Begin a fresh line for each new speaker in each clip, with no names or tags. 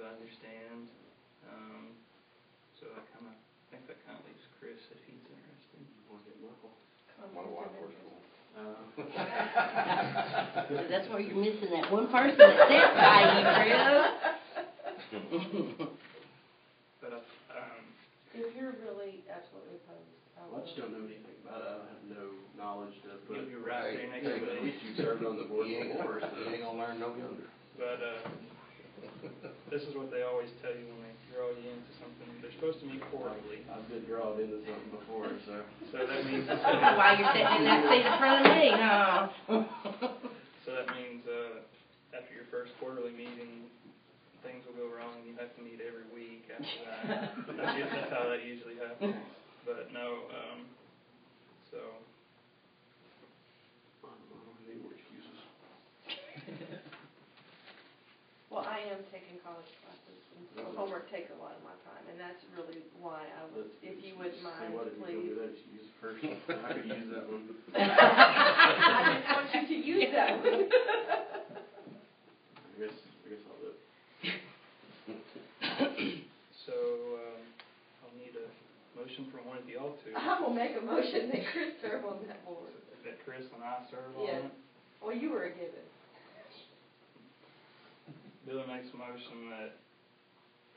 um,
my wife works for.
Uh,
So that's where you're missing that one person that sat by you, Chris.
But, um,
If you're really absolutely opposed, I
Well, I just don't know anything about it, I have no knowledge to put.
You'll be right there next
Hey,
to
At
it.
least you served on the board
He ain't
before,
gonna,
so.
he ain't gonna learn no younger.
but, uh, this is what they always tell you when they draw you into something. They're supposed to meet quarterly,
I've been drawn into something before, so.
so that means,
Why you're sitting in that seat in front of me, huh?
so that means, uh, after your first quarterly meeting, things will go wrong and you have to meet every week after that. That's u- that's how that usually happens. But no, um, so,
I don't have any more excuses.
Well, I am taking college classes, and so homework takes a lot of my time, and that's really why I was,
Let's-
if you wouldn't
say
mind,
what if you don't do
please.
that excuse first? I could use that one.
I just want you to use that one.
I guess, I guess I'll do it.
so, um, I'll need a motion from one of y'all two.
I will make a motion that Chris serve on that board.
That Chris and I serve on
Yes.
it.
Well, you were a given.
Billy makes a motion that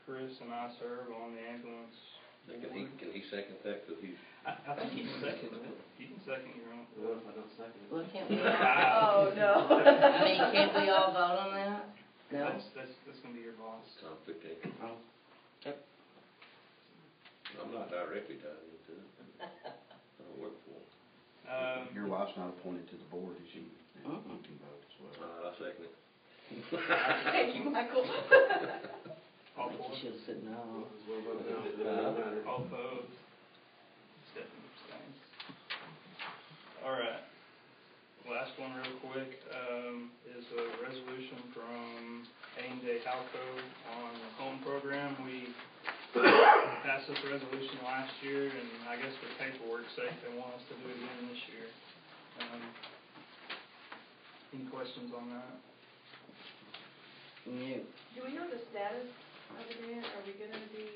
Chris and I serve on the ambulance.
Can he, can he second that, cause he's,
I, I think you can second it. Oh, You can second your own.
Well, if I don't second it.
Well, can't we, all-
Ah.
Oh, no.
I mean, can't we all vote on that? No?
That's, that's, that's gonna be your boss.
conflict ain't,
Oh.
I'm not directly tied into it. I don't work for him.
Um,
Your wife's not appointed to the board, is she? You
Mm-mm.
can vote as well.
Uh, I second it.
Thank you, Michael.
all four,
I think she should've said no.
As well, but no, it doesn't matter.
all opposed. Stephanie abstains. All right. Last one real quick, um, is a resolution from Aim Day Halco on the home program. We passed this resolution last year, and I guess for paperwork's sake, they want us to do it again this year. Um, Any questions on that?
No.
Do we know the status of the grant? Are we gonna be,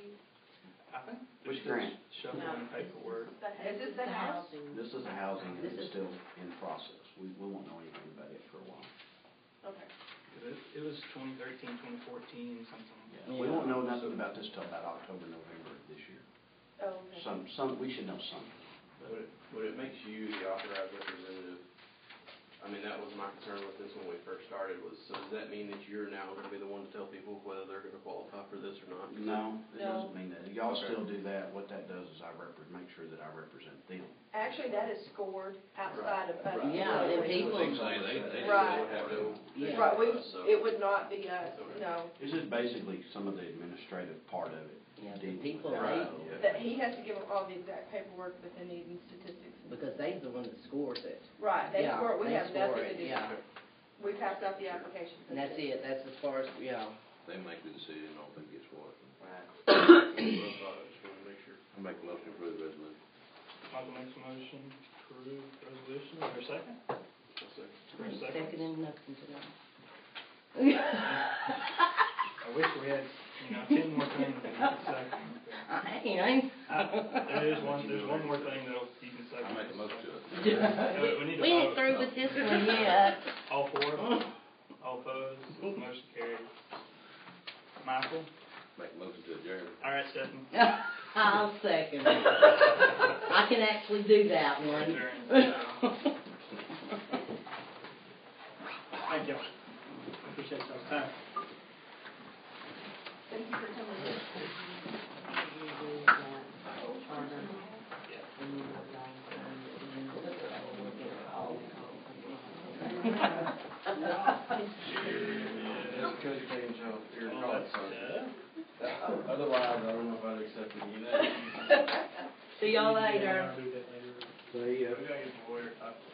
I think.
Which grant?
Shuffling paperwork.
is this the house?
This is a housing, and
This
it's
is-
still in process. We, we won't know anything about it for a while.
Okay.
It it was 2013, 2014, something.
We won't know nothing about this till about October, November of this year.
Oh, okay.
Some, some, we should know something.
Would it, would it make you the authorized representative? I mean, that was my concern with this when we first started was, so does that mean that you're now gonna be the one to tell people whether they're gonna qualify for this or not?
No, it
No.
doesn't mean that. Y'all
Okay.
still do that. What that does is I repre, make sure that I represent them.
Actually, that is scored outside of us.
Yeah,
Right.
then
Right.
people-
They- they- they- they
Right.
have no-
Yeah.
Right, we,
So-
it would not be us, no.
This is basically some of the administrative part of it.
Yeah, the
dealing with
people,
that.
right?
Yeah.
That he has to give them all the exact paperwork, but then need the statistics.
Because they's the one that scores it.
Right, they
Yeah,
score, it. we
they
have
score
nothing to
it,
do.
yeah.
We passed out the applications.
And that's it, that's as far as, yeah.
They make the decision on who gets what.
Right.
Well, I thought I just wanted to make sure.
I make a motion to approve the resolution.
Michael makes a motion to approve resolution. Is there a second?
I'll second.
For a second.
Second and nothing today.
I wish we had, you know, ten more things that we could second.
I ain't,
Uh, There is one, there's one more thing that you can second.
I make a motion to
I
it.
ain't.
we need to
We ain't
vote.
through with this one yet.
All four, all opposed, motion carried. Michael?
Make a motion to adjourn.
All right, Stephanie.
I'll second it. I can actually do that one.
Adjourn. Thank you. Appreciate y'all's time.
Thank you for coming in.
Could change how your
Oh,
Well, that's, uh,
Otherwise, I don't know if I'd accept it, you know?
See y'all later.
I'll do that later.
They, uh,
Maybe I get my lawyer, I